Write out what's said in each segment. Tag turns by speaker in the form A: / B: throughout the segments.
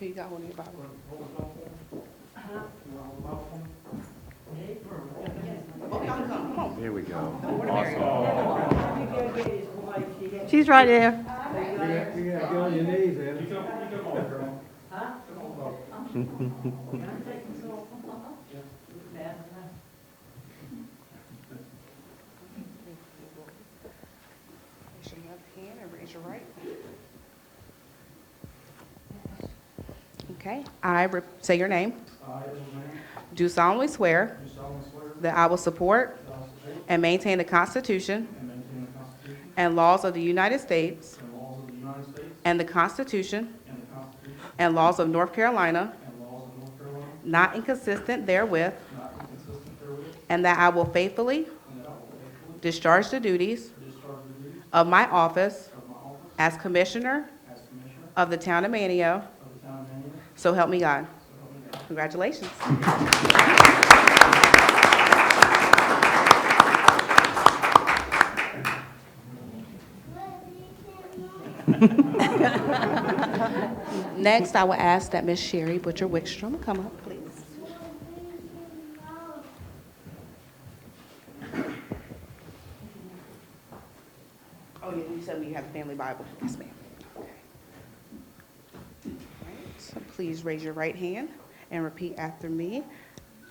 A: he got hold of your Bible.
B: Here we go.
C: She's right there.
D: You gotta get on your knees, Evan.
A: Raise your left hand and raise your right. Okay, I re- say your name.
D: I, Evan
A: Do solemnly swear
D: Lane, do solemnly swear
A: that I will support
D: that I will support
A: and maintain the Constitution
D: and maintain the Constitution
A: and laws of the United States
D: and laws of the United States
A: and the Constitution
D: and the Constitution
A: and laws of North Carolina,
D: and laws of North Carolina,
A: not inconsistent therewith,
D: not inconsistent therewith,
A: and that I will faithfully
D: and that I will faithfully
A: discharge the duties
D: discharge the duties
A: of my office
D: of my office
A: as Commissioner
D: as Commissioner
A: of the Town of Manio,
D: of the Town of Manning,
A: so help me God.
D: so help me God.
A: Congratulations. Next, I will ask that Miss Sherry Butcher Wickstrom come up, please. Oh, yeah, you said we have a family Bible. Yes, ma'am. Okay. All right, So please raise your right hand and repeat after me.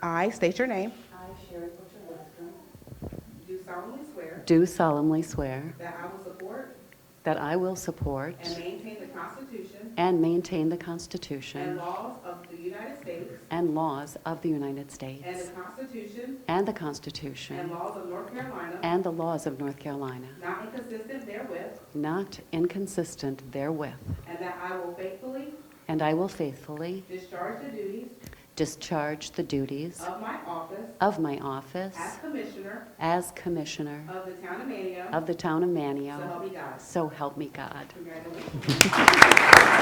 A: I state your name.
E: I, Sherry Butcher Westrum,
A: Do solemnly swear
E: do solemnly swear
A: that I will support
E: that I will support
A: and maintain the Constitution
E: and maintain the
A: and
E: Constitution
A: laws of the United States
E: and laws of the United
A: and the
E: States
A: Constitution
E: and the
A: and
E: Constitution
A: laws of North Carolina,
E: and the laws of North Carolina,
A: not inconsistent therewith,
E: not inconsistent therewith,
A: and that I will faithfully
E: and I will faithfully
A: discharge the duties
E: discharge the duties
A: of my office
E: of my office
A: as Commissioner
E: as Commissioner
A: of the Town of Manio,
E: of the Town of
A: so help
E: Manio.
A: me God.
E: So help me God.
A: Congratulations.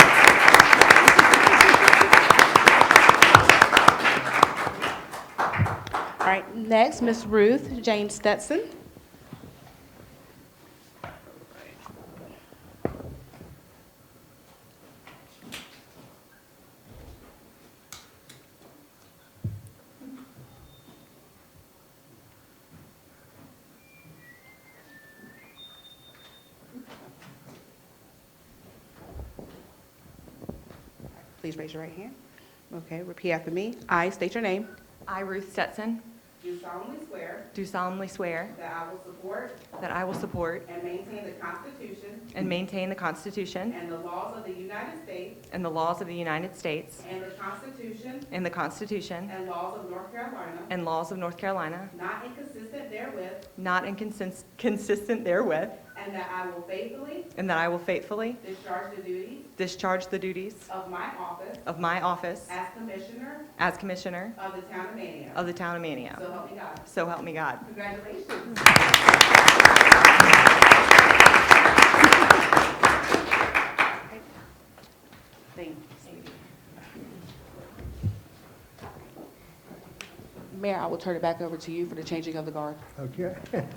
A: All right, next, Miss Ruth Jane Stetson. Please raise your right hand. Okay, repeat after me. I state your name.
F: I, Ruth Stetson,
A: Do solemnly swear
F: do solemnly swear
A: that I will support
F: that I will support
A: and maintain the Constitution
F: and maintain the Constitution
A: and the laws of the United States
F: and the laws of the United States
A: and the Constitution
F: and the Constitution
A: and laws of North Carolina,
F: and laws of North Carolina,
A: not inconsistent therewith,
F: not inconsistent therewith,
A: and that I will faithfully
F: and that I will faithfully
A: discharge the duties
F: discharge the duties
A: of my office
F: of my office
A: as Commissioner
F: as Commissioner
A: of the Town of Manio.
F: of the Town of Manio.
A: So help me God.
F: So help me God.
A: Congratulations. Mayor, I will turn it back over to you for the changing of the guard.
D: Okay.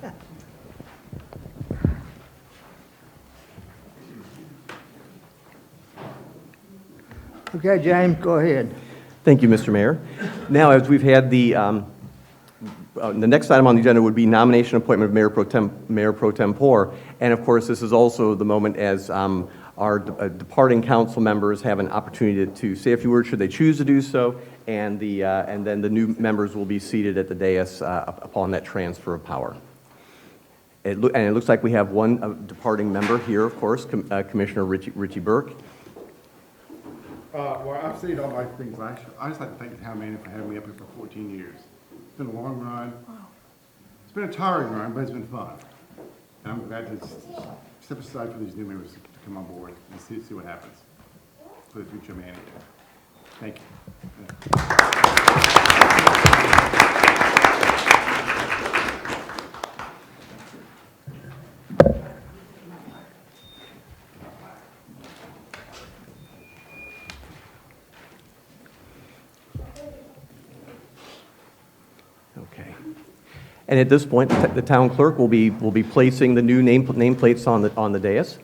D: Okay, James, go ahead.
B: Thank you, Mr. Mayor. Now, as we've had the, um, uh, the next item on the agenda would be nomination appointment of Mayor Pro Tem, Mayor Pro Tempore. And of course, this is also the moment as um, our de- uh, departing council members have an opportunity to say a few words should they choose to do so, and the, uh, and then the new members will be seated at the dais uh, up- upon that transfer of power. It loo- And it looks like we have one uh, departing member here, of course, Com- uh, Commissioner Richie Richie Burke.
G: Uh, well, I've seen all my things. I, should- I just like to thank the town manager for having me up here for fourteen years. It's been a long run. It's been a tiring run, but it's been fun. And I'm glad to s- step aside for these new members to come on board and see, see what happens for the future of Manatee. Thank you.
B: Okay. And at this point, the t- the town clerk will be, will be placing the new name nameplates on the, on the dais.